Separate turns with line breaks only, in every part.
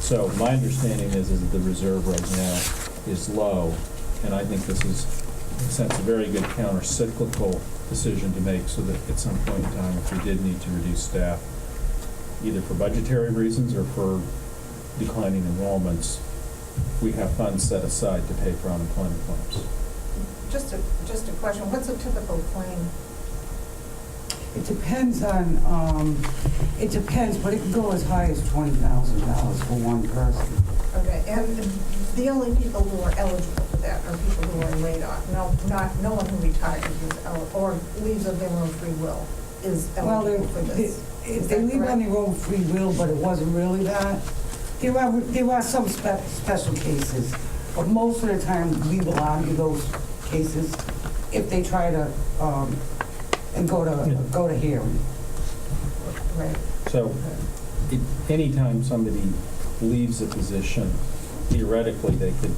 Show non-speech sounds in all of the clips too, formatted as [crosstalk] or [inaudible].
So my understanding is, is that the reserve right now is low, and I think this is, in a sense, a very good counter-cyclical decision to make, so that at some point in time, if we did need to reduce staff, either for budgetary reasons or for declining enrollments, we have funds set aside to pay for unemployment claims.
Just a, just a question, what's a typical claim?
It depends on, um, it depends, but it can go as high as twenty thousand dollars for one person.
Okay, and the only people who are eligible for that are people who are laid off. No, not, no one who retires is, el- or leaves of their own free will is
Well, they,
eligible for
they-
this. Is
they
that
leave on
correct?
their own free will, but it wasn't really that. There are, there are some spe- special cases, but most of the time, we will argue those cases if they try to, um, and go to, go to hearing.
Right,
So
okay.
it- anytime somebody leaves a position, theoretically, they could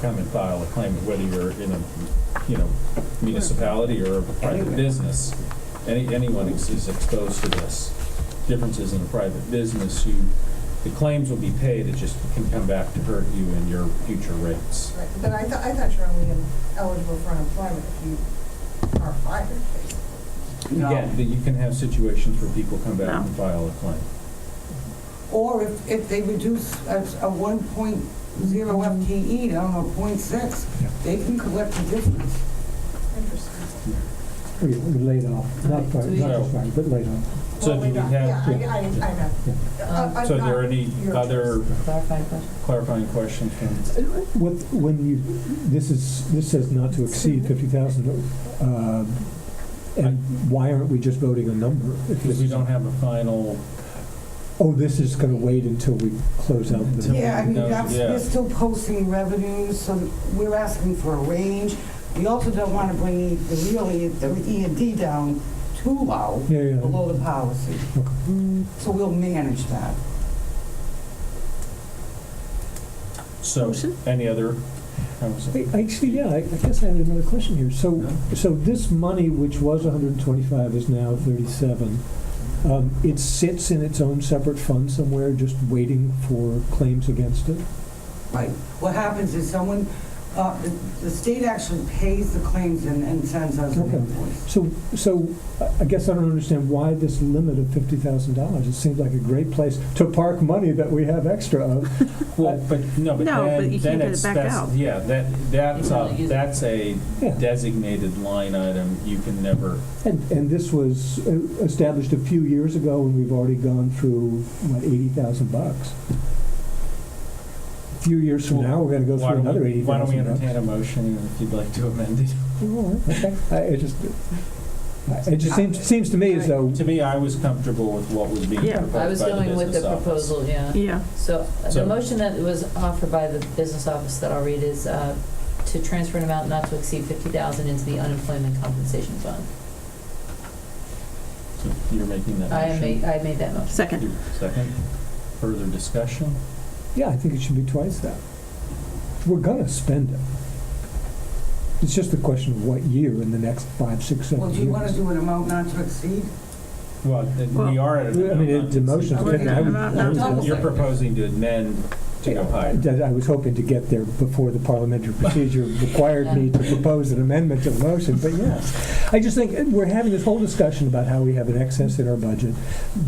come and file a claim, whether you're in a, you know, municipality or a private
Anywhere.
business. Any, anyone is is exposed to this. Differences in a private business, you, the claims will be paid, it just can come back to hurt you in your future rates.
Right, but I thought, I thought you're only eligible for unemployment if you are fired, basically.
Again, that you can have situations where people come back and file a claim.
Or if, if they reduce a, a one point zero FTE down to point six,
Yeah.
they can collect the difference.
Interesting.
We we laid off, not
Right, so
fired,
you-
not just fired, but laid off.
So
Well,
do
we
we
don't-
have-
Yeah, I, I, I know. Uh, I'm
So are there
not
any
your-
other
Clarifying question.
clarifying questions from?
What, when you, this is, this says not to exceed fifty thousand, um, and why aren't we just voting a number? If this
Because we
is-
don't have a final,
Oh, this is gonna wait until we close out the.
Yeah, I mean,
No,
that's,
yeah.
we're still posting revenues, so we're asking for a range. We also don't want to bring the real, E- the E and D down too low,
Yeah, yeah.
below the policy.
Okay.
So we'll manage that.
so,
Motion?
any other? that was it.
Wait, Actually, yeah, I I guess I had another question here. So, so this money, which was 125, is now 37. Um, It sits in its own separate fund somewhere, just waiting for claims against it?
Right. What happens is someone, uh, the, the state actually pays the claims and, and sends us an
Okay.
invoice.
So, so I- I guess I don't understand why this limit of $50,000. It seems like a great place to park money that we have extra of.
Well, but, no, but
No, but
then,
you can't
then
get it
it's,
back
that's,
out.
yeah, that, that's
You
a,
can't use it.
that's a
Yeah.
designated line item, you can never,
And, and this was uh, established a few years ago, and we've already gone through, what, 80,000 bucks? A few years from now, we're going to go
why
through
don't
another
we,
80,000 bucks.
why don't we entertain a motion if you'd like to amend it?
All right, okay. I, it just, it just seems, seems to me as though,
To me, I was comfortable with what was being
Yeah.
proposed by
I
the
was
business
going with the
office.
proposal, yeah.
Yeah,
So uh,
So-
the motion that was offered by the business office that I'll read is uh, to transfer an amount not to exceed 50000 into the unemployment compensation fund.
So You're making that
I made,
motion.
I made that motion.
second.
Second, further discussion?
yeah, I think it should be twice that. We're gonna spend it. It's just a question of what year in the next five, six, seven
Well,
years.
do you want to do an amount not to exceed?
Well, then we
Well-
are at a.
I mean, it- the motion.
I would- I would-
I would-
You're proposing to amend to go higher.
I I was hoping to get there before the parliamentary
[laughs]
procedure required me to propose an amendment to the motion, but yes. I just think uh, we're having this whole discussion about how we have an excess in our budget.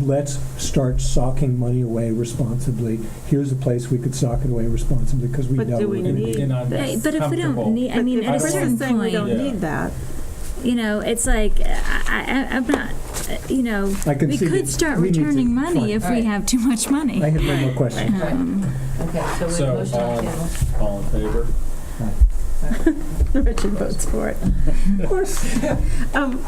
Let's start socking money away responsibly. Here's a place we could sock it away responsibly because we
But
know
do
we're
we
going to
need-
be.
And I'm
Hey, But if we
comfortable.
don't need, I mean, at a
But if
certain
Kristen's saying we
point,
don't
Yeah.
need that,
you know, it's like, I, I, I'm not, uh, you know,
I can
we
see
could
that
start
we need to-
returning
fine.
money if we
Right.
have too much
I
money.
have no more questions.
Um,
Okay, so we have
So,
a motion on the
um,
table.
All in favor?
Richard votes for it. Of course.
[laughs]
Um,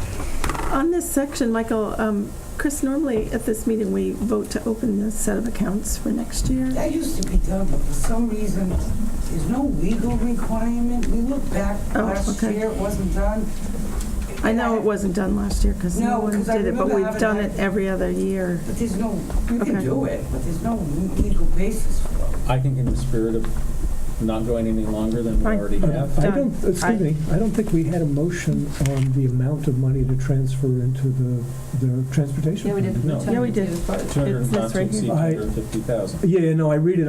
On this section, Michael, um, Chris, normally at this meeting, we vote to open the set of accounts for next year.
That used to be done, but for some reason, there's no legal requirement. We looked back
Oh,
last
okay.
year, it wasn't done.
I know it wasn't done last year because
No,
no one
'cause I
did it, but
remember
we've
having
done
that-
it every other year.
But there's no, you can
Okay.
do it, but there's no legal basis for it.
I think in the spirit of not going any longer than we
Fine.
already
Um,
have.
I
Done.
don't, excuse me, I don't think we had a motion on the amount of money to transfer into the, the transportation.
Yeah, we did.
No.
Tony,
Yeah, we did.
you-
Two hundred and
It's-
not
it's
to
right
exceed two
here. I-
hundred and fifty thousand.
Yeah, no, I read it